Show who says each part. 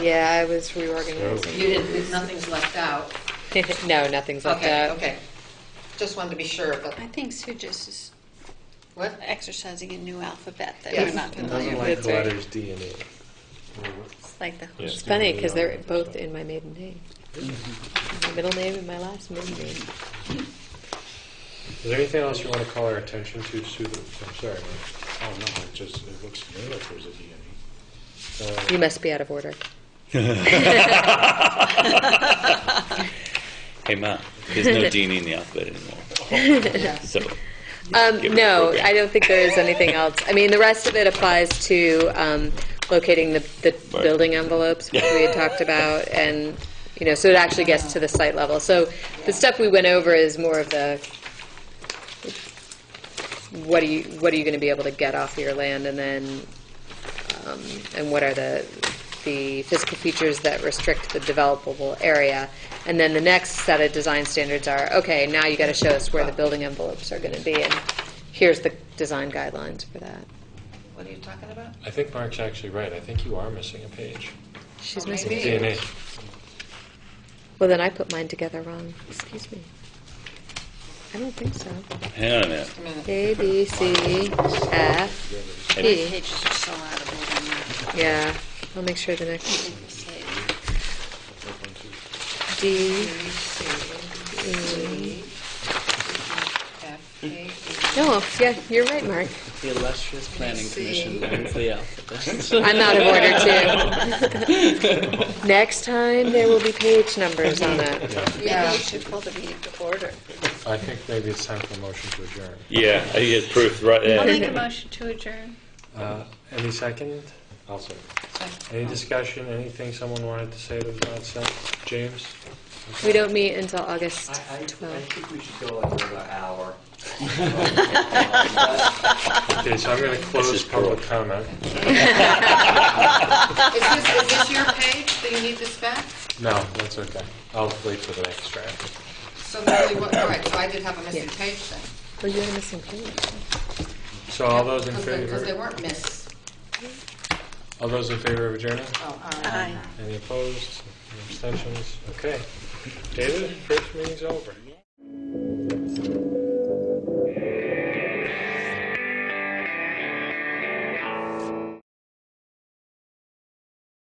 Speaker 1: Yeah, I was reorganizing.
Speaker 2: You didn't, nothing's left out.
Speaker 1: No, nothing's like
Speaker 2: Okay,
Speaker 1: that.
Speaker 2: okay. Just wanted to be sure, but,
Speaker 3: I think Sue just is
Speaker 2: what?
Speaker 3: exercising a new alphabet that
Speaker 2: Yes.
Speaker 3: we're not
Speaker 2: Doesn't
Speaker 3: familiar
Speaker 1: like That's
Speaker 3: with.
Speaker 1: the
Speaker 4: like the
Speaker 1: right.
Speaker 4: letters
Speaker 1: letters
Speaker 4: D and E.
Speaker 3: It's like the
Speaker 4: Yeah.
Speaker 1: It's funny because they're both in my maiden name. My middle name and my last maiden name.
Speaker 4: Is there anything else you want to call our attention to, Sue? that- I'm sorry, Mike.
Speaker 5: Oh, no, it just, it looks to me like there's a D in
Speaker 1: You must be out of order.
Speaker 6: Hey, Ma, there's no Deanie in the alphabet anymore. So,
Speaker 1: Um,
Speaker 6: Give it
Speaker 1: no,
Speaker 6: a program.
Speaker 1: I don't think there is anything else. I mean, the rest of it applies to um, locating the, the
Speaker 6: Right.
Speaker 1: building envelopes, which we had talked about, and, you know, so it actually gets to the site level. So the stuff we went over is more of the, what are you, what are you going to be able to get off your land, and then, um, and what are the, the physical features that restrict the developable area? And then the next set of design standards are, okay, now you got to show us where the building envelopes are going to be, and here's the design guidelines for that.
Speaker 2: What are you talking about?
Speaker 4: I think Mark's actually right. I think you are missing a page.
Speaker 1: She's
Speaker 2: Oh,
Speaker 1: missing.
Speaker 2: maybe.
Speaker 4: D and E.
Speaker 1: Well, then I put mine together wrong. Excuse me. I don't think so.
Speaker 6: hang on a minute.
Speaker 2: Just a minute.
Speaker 1: A, B, C, F, E.
Speaker 3: Pages are so out of order
Speaker 1: Yeah, I'll make sure the next,
Speaker 3: now. Say,
Speaker 1: D,
Speaker 2: B, C,
Speaker 1: E.
Speaker 2: F, A, B.
Speaker 1: No, yeah, you're right, Mark.
Speaker 7: The illustrious planning
Speaker 2: see.
Speaker 7: commission learns the alphabet.
Speaker 1: I'm out of order too. Next time, there will be page numbers on it.
Speaker 3: Maybe you should call the meeting to order.
Speaker 4: I think maybe it's time for a motion to adjourn.
Speaker 6: Yeah, I get proof right
Speaker 3: I'll
Speaker 6: there.
Speaker 3: make a motion to adjourn.
Speaker 4: Uh, Any second? I'll second. Any discussion, anything someone wanted to say that was not said? James?
Speaker 1: We don't meet until August
Speaker 8: I, I, I
Speaker 1: 12th.
Speaker 8: think we should go like another hour.
Speaker 4: Okay, so I'm going to close
Speaker 6: is
Speaker 4: public comment.
Speaker 2: Is this, is this your page that you need this back?
Speaker 4: No, that's okay. I'll wait for the next draft.
Speaker 2: So really, what, all right, so I did have a missing
Speaker 1: Yeah.
Speaker 2: page then.
Speaker 1: Well, you're missing page.
Speaker 4: So all those in
Speaker 2: Because they
Speaker 4: favor,
Speaker 2: weren't miss.
Speaker 4: all those in favor of adjourning?
Speaker 2: Oh, all right.
Speaker 3: Aye.
Speaker 4: Any opposed? Any abstentions? Okay. David, first meeting's over.